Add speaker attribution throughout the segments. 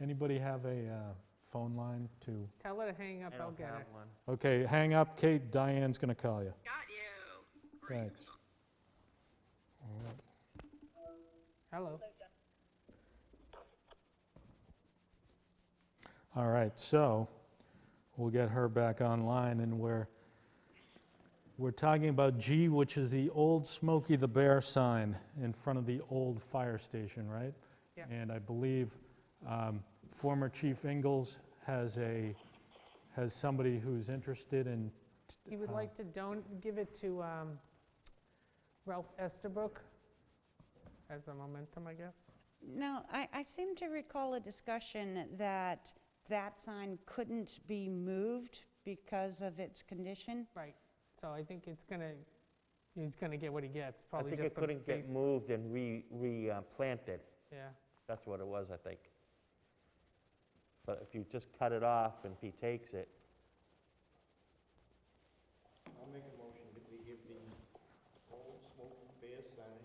Speaker 1: Anybody have a uh, phone line to,
Speaker 2: Tell her to hang up,
Speaker 3: I
Speaker 2: I'll
Speaker 3: don't
Speaker 2: get
Speaker 3: have
Speaker 2: her.
Speaker 3: one.
Speaker 1: okay, hang up, Kate, Diane's gonna call you.
Speaker 4: Got you.
Speaker 1: Thanks.
Speaker 2: Hello.
Speaker 1: All right, so we'll get her back online and we're, we're talking about G, which is the old Smokey the Bear sign in front of the old fire station, right?
Speaker 2: Yeah.
Speaker 1: And I believe um, former Chief Ingalls has a, has somebody who's interested in.
Speaker 2: He would
Speaker 1: uh,
Speaker 2: like to don, give it to um, Ralph Estabrook as a momentum, I guess.
Speaker 5: Now, I, I seem to recall a discussion that that sign couldn't be moved because of its condition.
Speaker 2: Right. So I think it's gonna, he's gonna get what he gets,
Speaker 3: I
Speaker 2: probably
Speaker 3: think
Speaker 2: just
Speaker 3: it
Speaker 2: the
Speaker 3: couldn't get
Speaker 2: base-
Speaker 3: moved and re, replanted.
Speaker 2: Yeah,
Speaker 3: That's what it was, I think. But if you just cut it off and if he takes it,
Speaker 6: I'll make a motion that we give the old smoking bear sign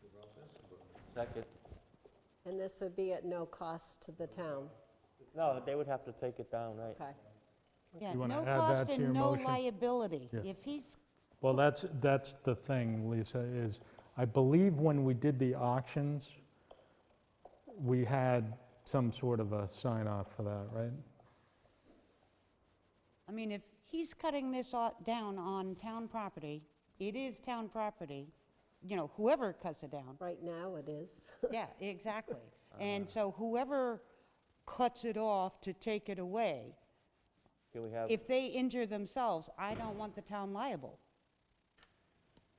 Speaker 6: to Ralph Estabrook.
Speaker 3: second,
Speaker 7: And this would be at no cost to the town,
Speaker 3: no, they would have to take it down, right?
Speaker 7: okay?
Speaker 5: Yeah,
Speaker 1: You wanna
Speaker 5: no
Speaker 1: add that
Speaker 5: cost
Speaker 1: to your
Speaker 5: and no
Speaker 1: motion?
Speaker 5: liability.
Speaker 1: Yeah.
Speaker 5: If he's,
Speaker 1: Well, that's, that's the thing, Lisa, is I believe when we did the auctions, we had some sort of a sign off for that, right?
Speaker 5: I mean, if he's cutting this o- down on town property, it is town property, you know, whoever cuts it down.
Speaker 7: Right now it is.
Speaker 5: Yeah, exactly. And so whoever cuts it off to take it away,
Speaker 3: Can we have,
Speaker 5: if they injure themselves, I don't want the town liable.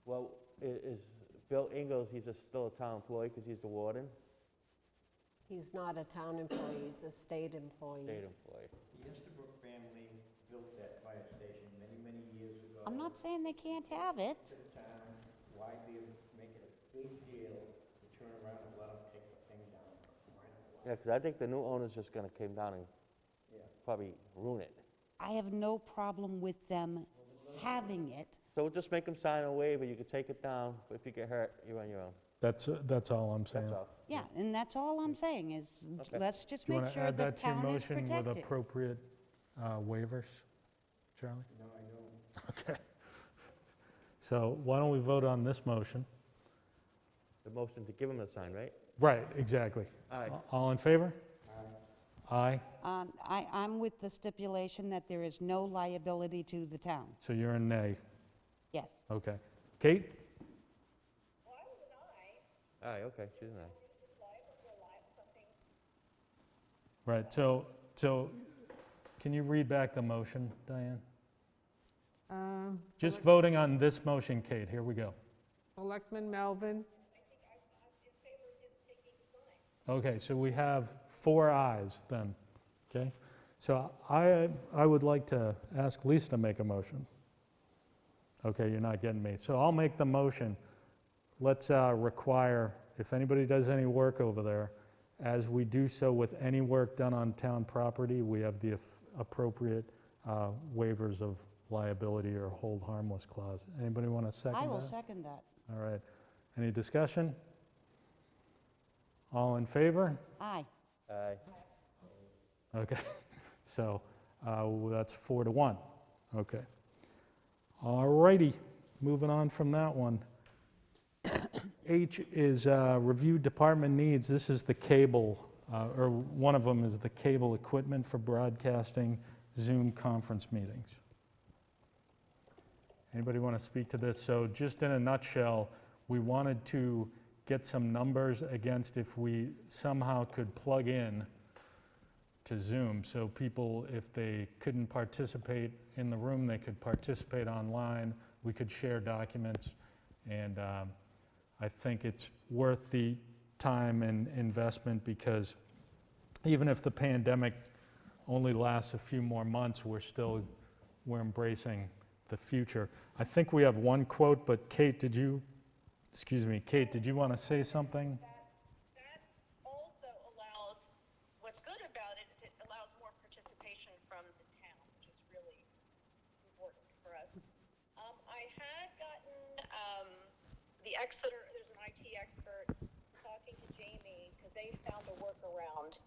Speaker 3: well, i- is Bill Ingalls, he's a- still a town employee because he's the warden,
Speaker 7: He's not a town employee, he's a state employee.
Speaker 3: state employee.
Speaker 6: The Estabrook family built that fire station many, many years ago.
Speaker 5: I'm not saying they can't have it.
Speaker 6: To the town, why do you make it a big deal to turn around and let them take the thing down? Why not?
Speaker 3: Yeah, because I think the new owner's just going to come down and
Speaker 6: Yeah.
Speaker 3: probably ruin it.
Speaker 5: I have no problem with them having it.
Speaker 3: So we'll just make him sign a waiver, you can take it down, but if you get hurt, you're on your own,
Speaker 1: That's, that's all I'm saying.
Speaker 3: that's all.
Speaker 5: Yeah, and that's all I'm saying is,
Speaker 3: Okay.
Speaker 5: let's just
Speaker 1: Do you
Speaker 5: make
Speaker 1: want to
Speaker 5: sure
Speaker 1: add
Speaker 5: the
Speaker 1: that to your
Speaker 5: town is
Speaker 1: motion with
Speaker 5: protected.
Speaker 1: appropriate uh, waivers, Charlie?
Speaker 6: No, I don't.
Speaker 1: Okay. So why don't we vote on this motion?
Speaker 3: The motion to give him the sign, right?
Speaker 1: Right, exactly.
Speaker 3: Aye.
Speaker 1: All in favor? Aye.
Speaker 5: Um, I, I'm with the stipulation that there is no liability to the town,
Speaker 1: So you're a nay.
Speaker 5: yes.
Speaker 1: Okay. Kate?
Speaker 3: Aye, okay, she's an aye.
Speaker 1: Right, so, so can you read back the motion, Diane?
Speaker 2: Um,
Speaker 1: Just voting on this motion, Kate, here we go.
Speaker 2: Selectman Melvin,
Speaker 1: Okay, so we have four ayes then, okay? So I, I would like to ask Lisa to make a motion. Okay, you're not getting me. So I'll make the motion. Let's uh, require, if anybody does any work over there, as we do so with any work done on town property, we have the aff- appropriate uh, waivers of liability or hold harmless clause. Anybody want to second that?
Speaker 5: I will second that.
Speaker 1: All right. Any discussion? All in favor?
Speaker 5: Aye.
Speaker 3: Aye.
Speaker 1: Okay, so uh, that's four to one. Okay. All righty, moving on from that one. H is uh, review department needs. This is the cable, uh, or one of them is the cable equipment for broadcasting Zoom conference meetings. Anybody want to speak to this? So just in a nutshell, we wanted to get some numbers against if we somehow could plug in to Zoom, so people, if they couldn't participate in the room, they could participate online, we could share documents, and um, I think it's worth the time and investment, because even if the pandemic only lasts a few more months, we're still, we're embracing the future. I think we have one quote, but Kate, did you, excuse me, Kate, did you want to say something?
Speaker 8: That also allows, what's good about it is it allows more participation from the town, which is really important for us. Um, I had gotten, um, the Exeter, there's an IT expert talking to Jamie, because they found a workaround